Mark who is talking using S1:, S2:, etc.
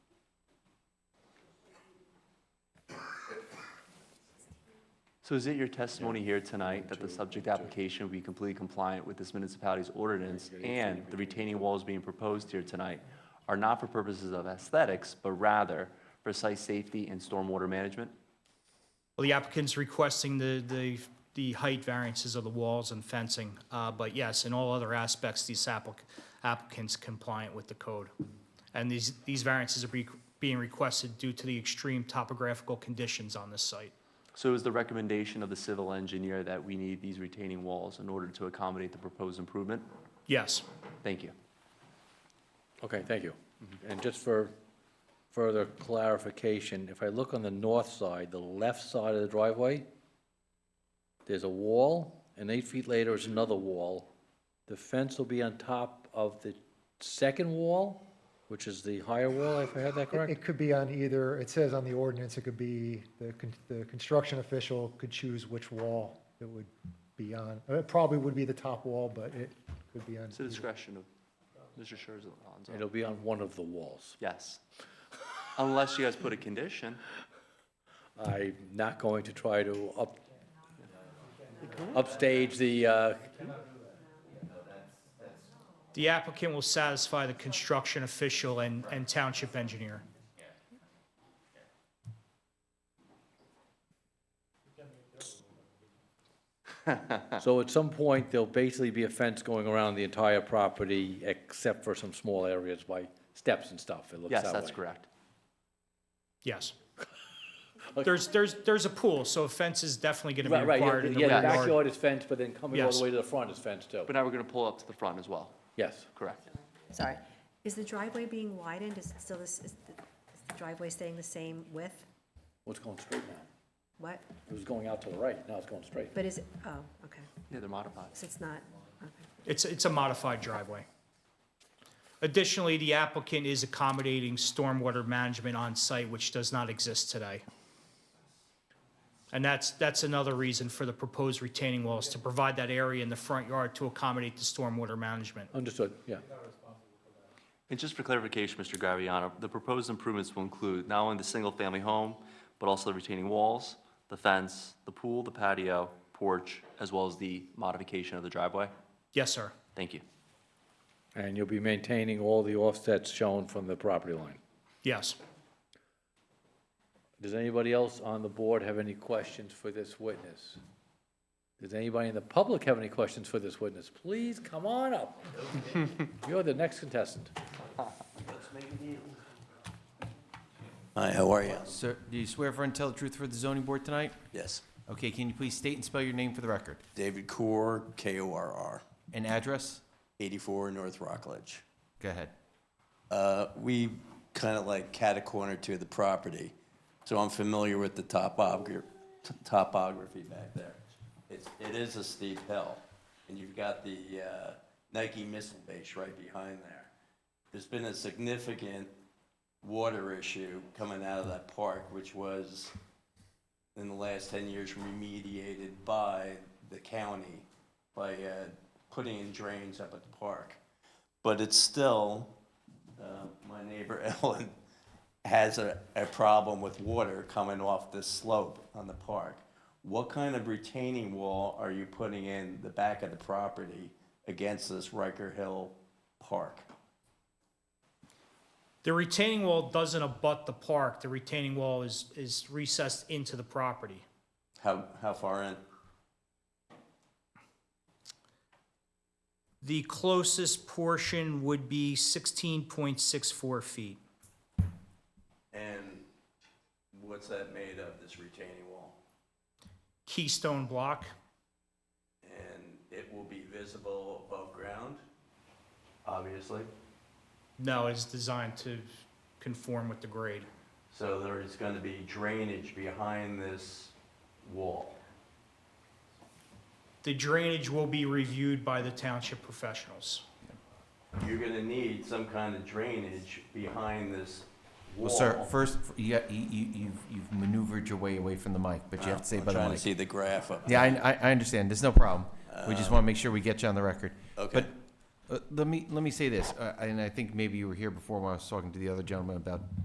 S1: So is it your testimony here tonight that the
S2: Two,
S1: subject
S2: two.
S1: application will be completely compliant with this municipality's ordinance
S2: you're getting
S1: and
S2: three
S1: the retaining walls being proposed here tonight are not for purposes of aesthetics, but rather for site safety and stormwater management?
S3: Well, the applicant's requesting the, the, the height variances of the walls and fencing, uh, but yes, in all other aspects, these applic- applicants compliant with the code. And these, these variances are be- being requested due to the extreme topographical conditions on this site.
S1: So is the recommendation of the civil engineer that we need these retaining walls in order to accommodate the proposed improvement?
S3: Yes,
S1: Thank you.
S2: Okay, thank you. Mm-hmm. And just for further clarification, if I look on the north side, the left side of the driveway, there's a wall, and eight feet later is another wall. The fence will be on top of the second wall, which is the higher wall, if I have that
S4: It-
S2: correct?
S4: It could be on either, it says on the ordinance, it could be, the, con- the construction official could choose which wall it would be on. Uh, It probably would be the top wall, but it could be on.
S1: It's the
S4: either.
S1: discretion of Mr. Sherzl.
S2: It'll be on one of the walls.
S1: Yes. Unless you guys put a condition.
S2: I'm not going to try to up, upstage the, uh,
S3: the applicant will satisfy the construction official and, and township engineer.
S2: So at some point, there'll basically be a fence going around the entire property, except for some small areas by steps and stuff, it looks that way.
S1: Yes, that's correct.
S3: Yes. There's, there's, there's a pool, so a fence is definitely gonna
S2: Right,
S3: be
S2: right,
S3: required
S2: yeah,
S3: in the
S2: yeah, the
S3: rear yard.
S2: backyard is fenced, but then coming all
S3: Yes.
S2: the way to the front is fenced too.
S1: But now we're going to pull up to the front as well.
S2: Yes,
S1: Correct.
S5: Sorry. Is the driveway being widened? Is it still this, is the is the driveway staying the same width?
S2: well, it's going straight now.
S5: What?
S2: It was going out to the right, now it's going straight.
S5: But is it, oh, okay.
S1: Yeah, they're modified.
S5: So it's not, okay.
S3: It's, it's a modified driveway. Additionally, the applicant is accommodating stormwater management on site, which does not exist today. And that's, that's another reason for the proposed retaining walls, to provide that area in the front yard to accommodate the stormwater management.
S2: Understood, yeah.
S1: And just for clarification, Mr. Graviano, the proposed improvements will include not only the single-family home, but also the retaining walls, the fence, the pool, the patio, porch, as well as the modification of the driveway?
S3: Yes, sir.
S1: Thank you.
S2: And you'll be maintaining all the offsets shown from the property line.
S3: Yes.
S2: Does anybody else on the board have any questions for this witness? Does anybody in the public have any questions for this witness? Please come on up. You're the next contestant.
S6: Hi, how are you?
S7: Sir, do you swear affirm to tell the truth for the zoning board tonight?
S6: Yes.
S7: Okay, can you please state and spell your name for the record?
S6: David Corr, K-O-R-R,
S7: And address?
S6: 84 North Rockledge.
S7: Go ahead.
S6: Uh, We kind of like cat a corner to the property, so I'm familiar with the topogra- t- topography back there. It's, it is a steep hill, and you've got the uh, Nike missile base right behind there. There's been a significant water issue coming out of that park, which was in the last 10 years remediated by the county by uh, putting in drains up at the park. But it's still, uh, my neighbor Ellen has a, a problem with water coming off this slope on the park. What kind of retaining wall are you putting in the back of the property against this Riker Hill Park?
S3: The retaining wall doesn't abut the park. The retaining wall is, is recessed into the property.
S6: How, how far in?
S3: The closest portion would be 16.64 feet.
S6: And what's that made of, this retaining wall?
S3: Keystone block.
S6: And it will be visible above ground, obviously.
S3: No, it's designed to conform with the grade.
S6: So there is going to be drainage behind this wall.
S3: The drainage will be reviewed by the township professionals.
S6: You're gonna need some kind of drainage behind this wall.
S7: Well, sir, first, you, got- you, you- you've, you've maneuvered your way away from the mic, but you have to say
S6: I'm
S7: by the
S6: Trying to
S7: mic.
S6: see the graph up.
S7: Yeah, I, I, I understand. There's no problem. We just want to make sure we get you on the record.
S6: Um, Okay.
S7: But, uh, let me, let me say this, uh, and I think maybe you were here before when I was talking to the other gentleman about